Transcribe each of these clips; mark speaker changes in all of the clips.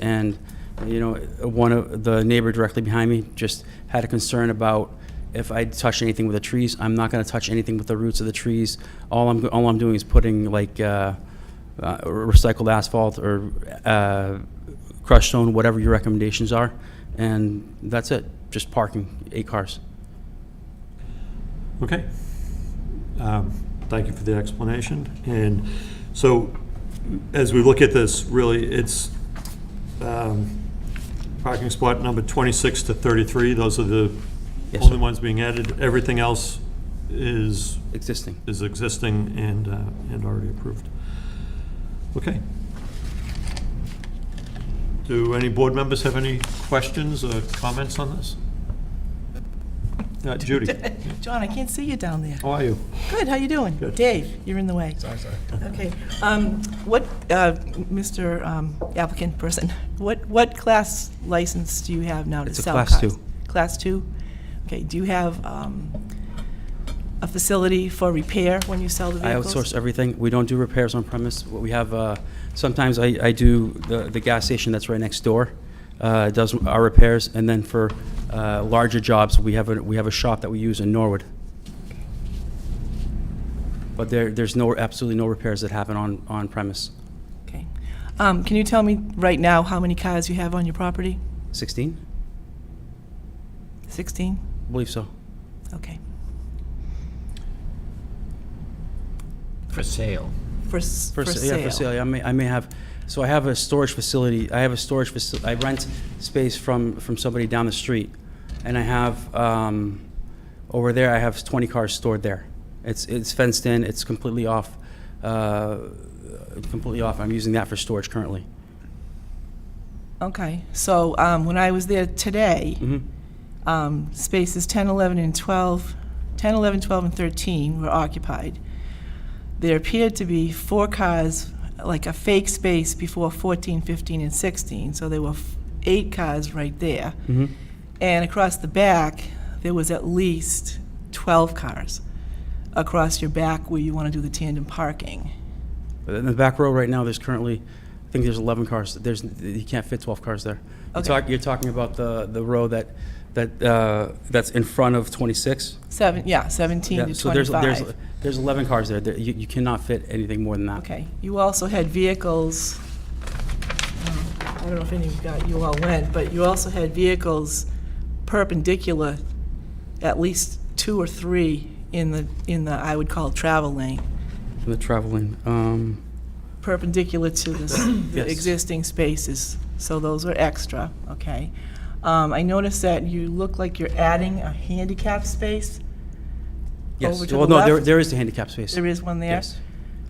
Speaker 1: And, you know, one of, the neighbor directly behind me just had a concern about if I touch anything with the trees. I'm not gonna touch anything with the roots of the trees. All I'm, all I'm doing is putting like, uh, uh, recycled asphalt or, uh, crushed stone, whatever your recommendations are. And that's it, just parking, eight cars.
Speaker 2: Okay. Um, Thank you for the explanation. And so, as we look at this, really, it's um, parking spot number 26 to 33, those are the
Speaker 1: Yes,
Speaker 2: only
Speaker 1: sir.
Speaker 2: ones being added. Everything else is,
Speaker 1: Existing.
Speaker 2: is existing and, uh, and already approved. Okay. Do any board members have any questions or comments on this? Uh, Judy,
Speaker 3: John, I can't see you down there.
Speaker 2: how are you?
Speaker 3: Good, how you doing?
Speaker 2: Good.
Speaker 3: Dave, you're in the way. Sorry, sorry. Okay. um, What, uh, Mr. um, applicant person, what, what class license do you have now to
Speaker 1: It's a
Speaker 3: sell
Speaker 1: class
Speaker 3: cars?
Speaker 1: two.
Speaker 3: Class two? Okay, do you have um, a facility for repair when you sell the
Speaker 1: I
Speaker 3: vehicles?
Speaker 1: outsource everything. We don't do repairs on premise. What we have, uh, sometimes I, I do the, the gas station that's right next door, uh, does our repairs. And then for, uh, larger jobs, we have a, we have a shop that we use in Norwood. But there, there's no, absolutely no repairs that happen on, on premise.
Speaker 3: Okay. Um, Can you tell me right now how many cars you have on your property?
Speaker 1: Sixteen?
Speaker 3: 16?
Speaker 1: I believe so.
Speaker 3: Okay.
Speaker 4: For sale.
Speaker 3: For s-
Speaker 1: For sa- Yeah, for sale, yeah, I may, I may have, so I have a storage facility, I have a storage faci, I rent space from, from somebody down the street. And I have, um, over there, I have twenty cars stored there. It's, it's fenced in, it's completely off, uh, completely off, I'm using that for storage currently.
Speaker 3: Okay, so um, when I was there today,
Speaker 1: Mm-hmm.
Speaker 3: um, spaces 10, 11, and 12, 10, 11, 12, and 13 were occupied. There appeared to be four cars, like a fake space before 14, 15, and 16, so there were f- eight cars right there.
Speaker 1: Mm-hmm.
Speaker 3: And across the back, there was at least 12 cars across your back where you want to do the tandem parking.
Speaker 1: But in the back row right now, there's currently, I think there's 11 cars, there's, you can't fit 12 cars there. You're
Speaker 3: Okay.
Speaker 1: talk- You're talking about the, the row that, that, uh, that's in front of 26?
Speaker 3: Seven, yeah, 17 to
Speaker 1: Yeah,
Speaker 3: 25.
Speaker 1: so there's- there's- There's 11 cars there. There- You you cannot fit anything more than that.
Speaker 3: Okay, you also had vehicles, um, I don't know if any of you got- you all went, but you also had vehicles perpendicular, at least two or three in the, in the, I would call travel lane,
Speaker 1: The traveling, um,
Speaker 3: perpendicular to the s- the
Speaker 1: Yes.
Speaker 3: existing spaces, so those are extra, okay? Um, I noticed that you look like you're adding a handicap space.
Speaker 1: yes.
Speaker 3: Over to
Speaker 1: Well,
Speaker 3: the
Speaker 1: no, there-
Speaker 3: left?
Speaker 1: there is the handicap space.
Speaker 3: There is one there?
Speaker 1: Yes.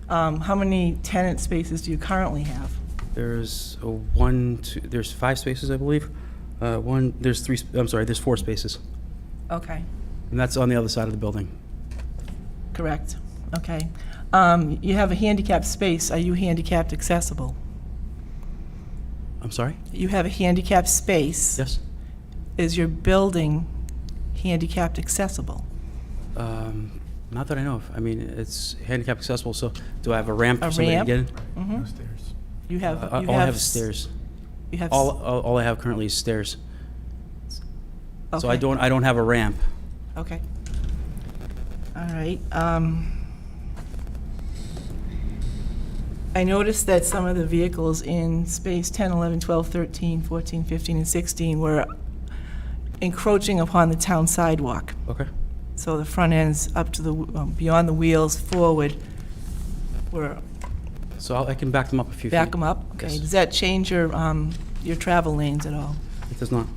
Speaker 3: Um, How many tenant spaces do you currently have?
Speaker 1: There's a one, two, there's five spaces, I believe. Uh, One, there's three, sp- I'm sorry, there's four spaces.
Speaker 3: Okay.
Speaker 1: And that's on the other side of the building.
Speaker 3: Correct, okay. Um, You have a handicapped space, are you handicapped accessible?
Speaker 1: I'm sorry?
Speaker 3: You have a handicapped space.
Speaker 1: Yes?
Speaker 3: Is your building handicapped accessible?
Speaker 1: Um, Not that I know of. I mean, it's handicap accessible, so do I have a ramp
Speaker 3: A
Speaker 1: for somebody to
Speaker 3: ramp?
Speaker 1: get in?
Speaker 3: You have,
Speaker 1: Uh,
Speaker 3: you have...
Speaker 1: All I have is
Speaker 3: s-
Speaker 1: stairs.
Speaker 3: You have... s-
Speaker 1: All, all all I have currently is stairs. So I
Speaker 3: okay,
Speaker 1: don't, I don't have a ramp.
Speaker 3: Okay. All right. um, I noticed that some of the vehicles in space 10, 11, 12, 13, 14, 15, and 16 were encroaching upon the town sidewalk.
Speaker 1: Okay.
Speaker 3: So the front ends up to the, um, beyond the wheels, forward, or
Speaker 1: So I'll- I can back them up a few feet.
Speaker 3: back them up? Okay,
Speaker 1: Yes.
Speaker 3: does that change your, um, your travel lanes at all?
Speaker 1: It does not.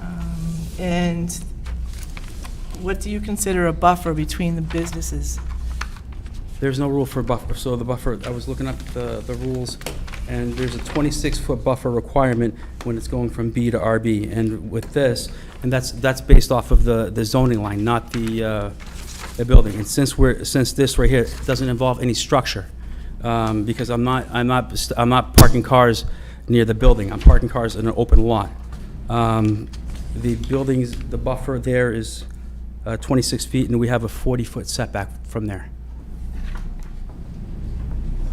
Speaker 3: Um, And what do you consider a buffer between the businesses?
Speaker 1: There's no rule for buffer, so the buffer, I was looking up the, the rules, and there's a 26-foot buffer requirement when it's going from B to RB, and with this, and that's, that's based off of the, the zoning line, not the, uh, the building. And since we're, since this right here doesn't involve any structure, um, because I'm not, I'm not, st- I'm not parking cars near the building, I'm parking cars in an open lot. Um, The buildings, the buffer there is uh, 26 feet, and we have a 40-foot setback from there.